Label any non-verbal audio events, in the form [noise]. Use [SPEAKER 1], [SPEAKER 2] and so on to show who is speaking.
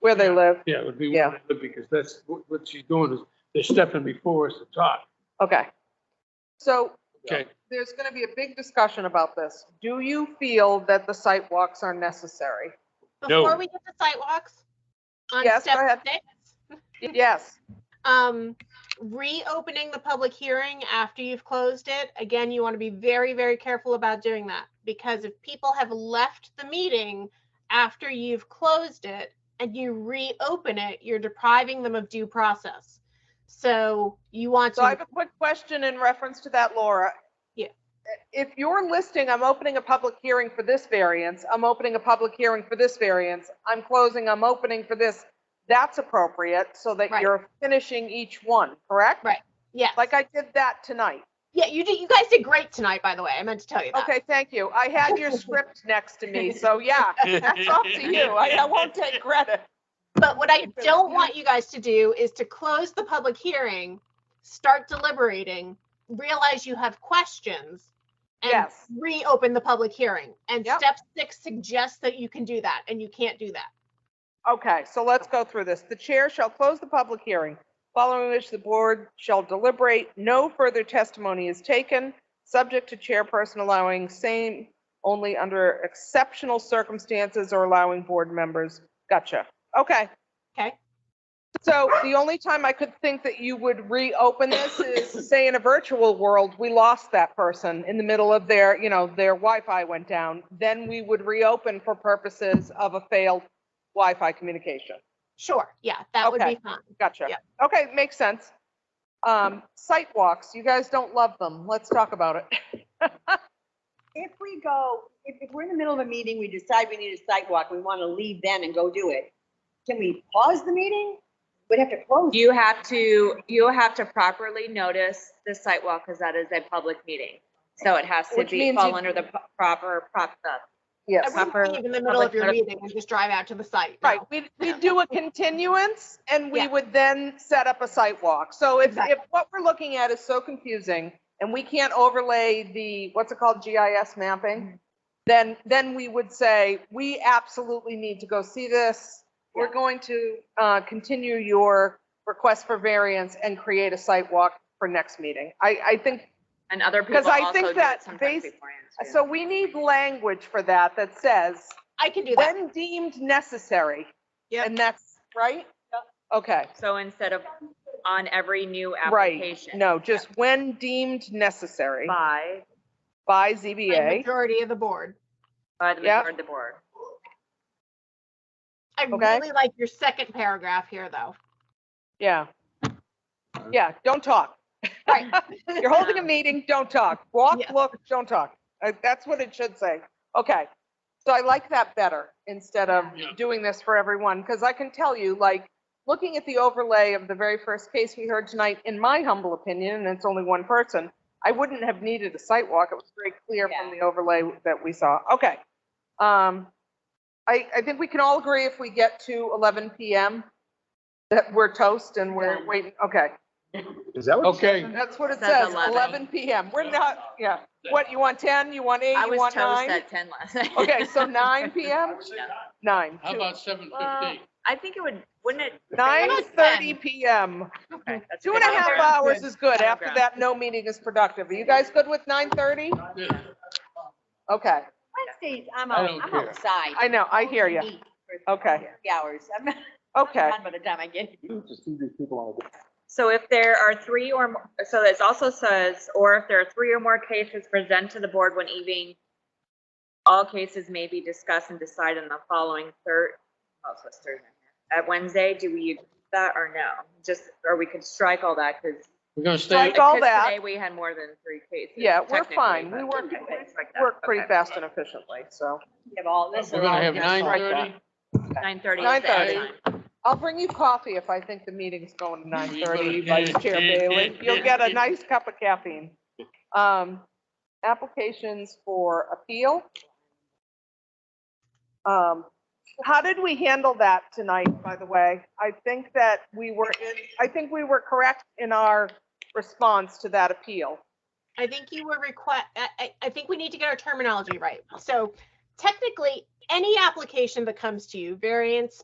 [SPEAKER 1] where they live.
[SPEAKER 2] Yeah, it would be,
[SPEAKER 1] Yeah.
[SPEAKER 2] because that's, what what she's doing is, they're stepping before us to talk.
[SPEAKER 1] Okay. So
[SPEAKER 2] [laughs]
[SPEAKER 1] [laughs]
[SPEAKER 2] Okay.
[SPEAKER 1] there's going to be a big discussion about this. Do you feel that the sidewalks are necessary?
[SPEAKER 2] No.
[SPEAKER 3] Before we get to sidewalks, on
[SPEAKER 1] Yes, go ahead.
[SPEAKER 3] step six,
[SPEAKER 1] Yes.
[SPEAKER 3] um, reopening the public hearing after you've closed it, again, you want to be very, very careful about doing that. Because if people have left the meeting after you've closed it and you reopen it, you're depriving them of due process. So you want
[SPEAKER 1] So I have
[SPEAKER 3] to,
[SPEAKER 1] a quick question in reference to that, Laura.
[SPEAKER 3] Yeah.
[SPEAKER 1] If you're listing, I'm opening a public hearing for this variance, I'm opening a public hearing for this variance, I'm closing, I'm opening for this, that's appropriate so that
[SPEAKER 3] Right.
[SPEAKER 1] you're finishing each one, correct?
[SPEAKER 3] Right. yeah,
[SPEAKER 1] Like I did that tonight.
[SPEAKER 3] yeah, you did, you guys did great tonight, by the way. I meant to tell you that.
[SPEAKER 1] Okay, thank you. I had your script next to me, so yeah, that's up to you. I I won't take credit.
[SPEAKER 3] But what I
[SPEAKER 1] Because
[SPEAKER 3] don't
[SPEAKER 1] you-
[SPEAKER 3] want you guys to do is to close the public hearing, start deliberating, realize you have questions, and
[SPEAKER 1] Yes.
[SPEAKER 3] reopen the public hearing. And
[SPEAKER 1] Yep.
[SPEAKER 3] step six suggests that you can do that, and you can't do that.
[SPEAKER 1] Okay, so let's go through this. The chair shall close the public hearing, following which the board shall deliberate. No further testimony is taken, subject to chairperson allowing same only under exceptional circumstances or allowing board members. Gotcha. Okay.
[SPEAKER 3] Okay.
[SPEAKER 1] So the only time I could think that you would reopen this is, say, in a virtual world, we lost that person in the middle of their, you know, their Wi-Fi went down. Then we would reopen for purposes of a failed Wi-Fi communication.
[SPEAKER 3] Sure, yeah, that would
[SPEAKER 1] Okay.
[SPEAKER 3] be fine.
[SPEAKER 1] Gotcha.
[SPEAKER 3] Yeah.
[SPEAKER 1] Okay, makes sense. Um, sidewalks, you guys don't love them. Let's talk about it.
[SPEAKER 4] If we go, if, if we're in the middle of a meeting, we decide we need a sidewalk, we want to leave then and go do it. Can we pause the meeting? We'd have to close. it.
[SPEAKER 5] You have to, you'll have to properly notice the site walk because that is a public meeting. So it has to
[SPEAKER 1] Which
[SPEAKER 5] be,
[SPEAKER 1] means you-
[SPEAKER 5] fall under the pro- proper, prop, the
[SPEAKER 3] I
[SPEAKER 1] Yes.
[SPEAKER 5] Proper
[SPEAKER 3] wouldn't leave in the middle of
[SPEAKER 5] public
[SPEAKER 3] your
[SPEAKER 5] notif-
[SPEAKER 3] meeting and just drive out to the site. no.
[SPEAKER 1] Right, we, we do a continuance and we
[SPEAKER 3] Yeah.
[SPEAKER 1] would then set up a sidewalk. So if,
[SPEAKER 3] Exactly.
[SPEAKER 1] if what we're looking at is so confusing and we can't overlay the, what's it called, GIS
[SPEAKER 3] Mm-hmm.
[SPEAKER 1] mapping? Then, then we would say, we absolutely need to go see this. We're going to, uh, continue your request for variance and create a sidewalk for next meeting. I, I think
[SPEAKER 5] and other people
[SPEAKER 1] Because I
[SPEAKER 5] also
[SPEAKER 1] think
[SPEAKER 5] do it
[SPEAKER 1] that
[SPEAKER 5] sometimes
[SPEAKER 1] based-
[SPEAKER 5] beforehand. too.
[SPEAKER 1] So we need language for that that says,
[SPEAKER 3] I can do that.
[SPEAKER 1] when deemed necessary.
[SPEAKER 3] Yep.
[SPEAKER 1] And that's, right? Okay,
[SPEAKER 5] So instead of on every new
[SPEAKER 1] right.
[SPEAKER 5] application.
[SPEAKER 1] No, just when deemed necessary
[SPEAKER 5] By,
[SPEAKER 1] by
[SPEAKER 3] by
[SPEAKER 1] ZBA.
[SPEAKER 3] Majority of the board.
[SPEAKER 5] by the
[SPEAKER 1] Yep.
[SPEAKER 5] majority of the board.
[SPEAKER 3] I
[SPEAKER 1] Okay.
[SPEAKER 3] really like your second paragraph here, though.
[SPEAKER 1] Yeah. Yeah, don't talk.
[SPEAKER 3] Right.
[SPEAKER 1] [laughs] You're holding a meeting, don't talk. Walk,
[SPEAKER 3] Yeah.
[SPEAKER 1] look, don't talk. Uh, That's what it should say. Okay. So I like that better instead of
[SPEAKER 2] Yeah.
[SPEAKER 1] doing this for everyone, because I can tell you, like, looking at the overlay of the very first case we heard tonight, in my humble opinion, and it's only one person, I wouldn't have needed a site walk. It was very clear from the overlay that we saw. Okay. Um, I, I think we can all agree if we get to 11 PM that we're toast and we're
[SPEAKER 5] Done.
[SPEAKER 1] waiting. Okay.
[SPEAKER 6] Is that what?
[SPEAKER 2] Okay,
[SPEAKER 1] That's what it
[SPEAKER 5] Says
[SPEAKER 1] says,
[SPEAKER 5] 11.
[SPEAKER 1] 11 PM. We're not, yeah. What, you want 10, you want 8,
[SPEAKER 5] I
[SPEAKER 1] you
[SPEAKER 5] was
[SPEAKER 1] want
[SPEAKER 5] toast
[SPEAKER 1] 9?
[SPEAKER 5] at ten last night.
[SPEAKER 1] Okay, so
[SPEAKER 5] [laughs]
[SPEAKER 1] 9 PM? 9.
[SPEAKER 2] [laughs] how about seven
[SPEAKER 5] Well,
[SPEAKER 2] fifteen?
[SPEAKER 5] I think it would, wouldn't it?
[SPEAKER 3] about
[SPEAKER 1] 9:30 PM.
[SPEAKER 5] Okay, that's
[SPEAKER 1] Two
[SPEAKER 5] good.
[SPEAKER 1] and a half
[SPEAKER 5] Fair.
[SPEAKER 1] hours is good.
[SPEAKER 5] Middle
[SPEAKER 1] After
[SPEAKER 5] ground.
[SPEAKER 1] that, no meeting is productive. Are you guys good with 9:30? Uh, Okay,
[SPEAKER 4] Wednesdays, I'm
[SPEAKER 2] I
[SPEAKER 4] out,
[SPEAKER 2] don't
[SPEAKER 4] I'm
[SPEAKER 2] care.
[SPEAKER 4] outside.
[SPEAKER 1] I know, I hear you.
[SPEAKER 4] Eat for
[SPEAKER 1] Okay,
[SPEAKER 4] Three hours. I'm not
[SPEAKER 1] okay.
[SPEAKER 4] [laughs] done by the time I get. here.
[SPEAKER 6] To see these people on a
[SPEAKER 5] So if there are three or, mo- so this also says, or if there are three or more cases presented to the board when evening, all cases may be discussed and decided on the following third, oh, so it's Thursday. At Wednesday, do we use that or no? Just, or we could strike all that because.
[SPEAKER 2] We're gonna stay,
[SPEAKER 1] Strike all that.
[SPEAKER 5] Today, we had more than three cases.
[SPEAKER 1] Yeah, we're
[SPEAKER 5] technically,
[SPEAKER 1] fine. We
[SPEAKER 5] but
[SPEAKER 1] work,
[SPEAKER 5] we can strike that.
[SPEAKER 1] work pretty
[SPEAKER 5] Okay.
[SPEAKER 1] fast and efficiently, so.
[SPEAKER 4] We have all this.
[SPEAKER 2] we're gonna have
[SPEAKER 1] Yeah,
[SPEAKER 2] nine
[SPEAKER 1] strike
[SPEAKER 2] thirty.
[SPEAKER 5] Nine thirty.
[SPEAKER 1] 9:30. I'll bring you coffee if I think the meeting's going to nine thirty, Vice Chair Bailey. You'll get a nice cup of caffeine. Um, applications for appeal. Um, how did we handle that tonight, by the way? I think that we were, in- I think we were correct in our response to that appeal.
[SPEAKER 3] I think you were request, I, I, I think we need to get our terminology right. So technically, any application that comes to you, variance,